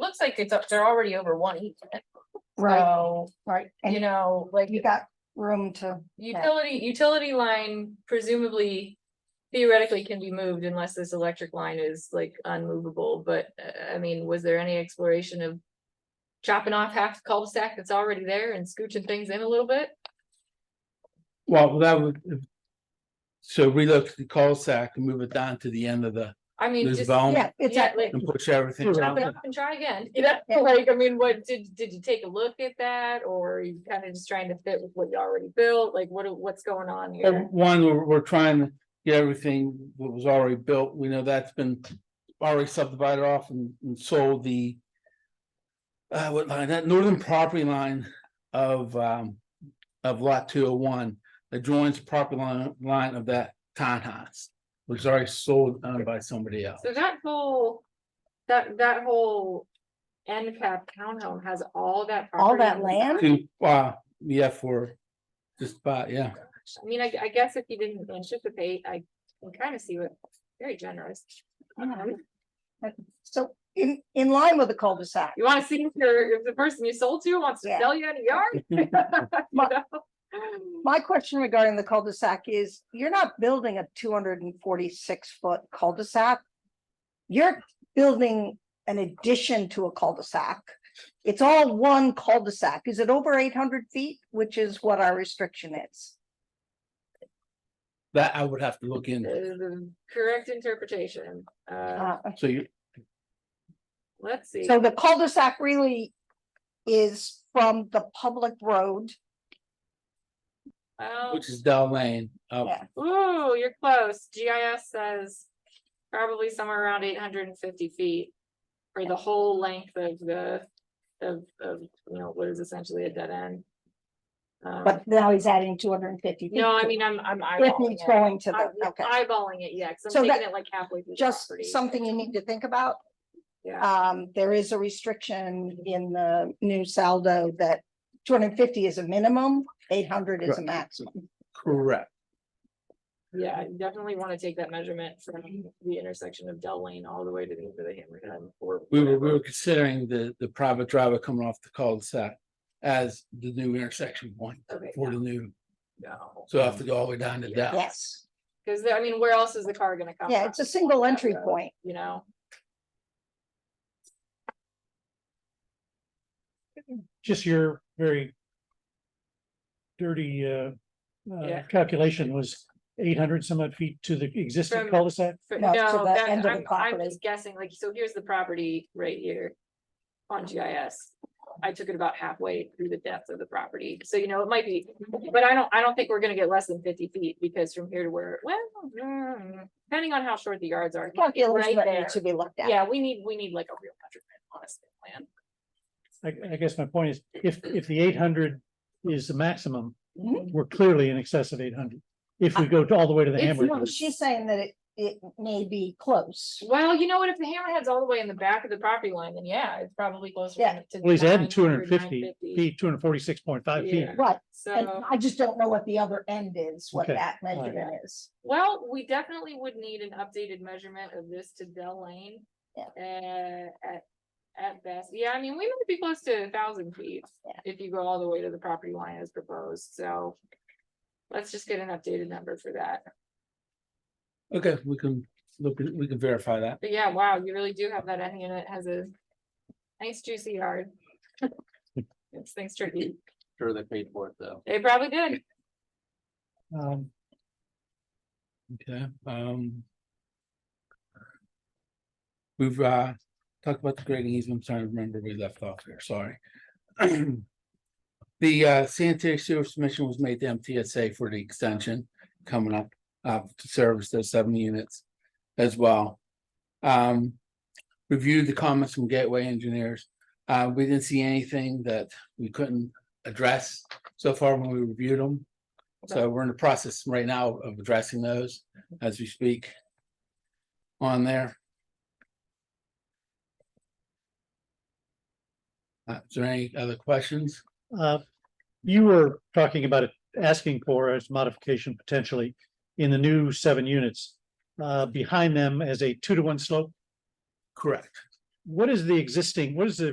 looks like it's, up- they're already over one easement, Right, so, right. Um, you And know, like. you got room to, Utility, utility line presumably theoretically can be moved unless this electric line is like unmovable, but uh, I mean, was there any exploration of? Chopping off half the cul-de-sac that's already there and scooching things in a little bit? Well, that would. So relocate the cul-de-sac and move it down to the end of the, I mean, this just. zone yeah, it's, Um, Yeah, like, and push everything chop around. it it. up and try again, you know, Yeah. like, I mean, what, did, did you take a look at that, or are you kind of just trying to fit with what you already built, like, what, what's going on Uh, here? One, we're, we're trying to get everything that was already built. We know that's been already subdivided off and, and sold the. Uh, what line, that northern property line of, um, of lot two oh one, that joins the property line, line of that townhouse. Which is already sold, owned by somebody else. So that whole, that, that whole end cap townhome has all that. All that property on the back? land? Two, uh, yeah, for just about, yeah. I mean, I, I guess if you didn't anticipate, I can kind of see what, very generous. Mm-hmm. Um, so in, in line with the cul-de-sac. You wanna see if your, if the person you sold to wants to Yeah. sell you any yard? You know? My question regarding the cul-de-sac is, you're not building a two hundred and forty-six foot cul-de-sac. You're building an addition to a cul-de-sac. It's all one cul-de-sac. Is it over eight hundred feet, which is what our restriction is? That I would have to look into. The- the Correct interpretation, uh, Uh, So you, let's see. So the cul-de-sac really is from the public road. Well, which is Dell Lane, um, up Yeah. Ooh, you're close. GIS says probably somewhere around eight hundred and fifty feet. For the whole length of the, of, of, you know, what is essentially a dead end. Um, But now he's adding two hundred and fifty. no, I mean, I'm, I'm If eyeballing he's it. going to I'm the, okay, Eyeballing it, yeah, cause So I'm that- taking it like halfway through. the just property. something you need to think about. Yeah, Um, there is a restriction in the new saldo that two hundred and fifty is a minimum, eight hundred is a Correct. maximum. correct. yeah, I definitely wanna take that measurement from the intersection of Dell Lane all the way to the end of the hammerhead. or We were, we whatever. were considering the, the private driver coming off the cul-de-sac as the new intersection point Okay, for the new, no. so I have to go all the way down to Dell. Yes, Cause there- I mean, where else is the car gonna come? yeah, from? it's a single entry point. you know? just your very dirty uh, uh, Yeah. calculation was eight hundred some odd feet to the existing From- cul-de-sac. For- No, No, to the that- end of the I'm, I'm property. just guessing, like, so here's the property right here on GIS. I took it about halfway through the depth of the property, so you know, it might be, but I don't, I don't think we're gonna get less than fifty feet, because from here to where, well, mm, depending on how short the yards are. Calculation Right that needs there. to be looked at. Yeah, we need, we need like a real measurement, honestly, plan. I, I guess my point is, if, if the eight hundred is the maximum, Mm-hmm. Mhm. we're clearly in excess of eight hundred. If we go to- all the way to the It's hammerhead, No, She's saying that it, it may be close. Well, you know what, if the hammerhead's all the way in the back of the property line, then yeah, it's probably closer. Yeah. to well, he's adding 900, two hundred and fifty 950. feet, two hundred and forty-six point five feet. Yeah. Right, and So. I just don't know what the other end is, what Okay, that all right. measurement is. Well, we definitely would need an updated measurement of this to Dell Lane. Yeah. Uh, at, at best, yeah, I mean, we might be close to a thousand feet. Yeah. If you go all the way to the property line as proposed, so. Let's just get an updated number for that. Okay, we can look, at- we can verify that. But yeah, wow, you really do have that end unit has a nice juicy yard. It's things tricky. Sure, they paid for it though. They probably did. Um, Okay, um. We've, uh, talked about the grading easement, I'm trying to remember we left off here, sorry. The, uh, sanitary sewer submission was made to MTSA for the extension coming up, uh, to service those seven units as well. Um, reviewed the comments from Gateway Engineers, uh, we didn't see anything that we couldn't address so far when we reviewed them. So we're in the process right now of addressing those as we speak. On there. Uh, is there any other questions? uh, You were talking about it, asking for as modification potentially in the new seven units. Uh, behind them as a two to one slope. Correct. what is the existing, what is the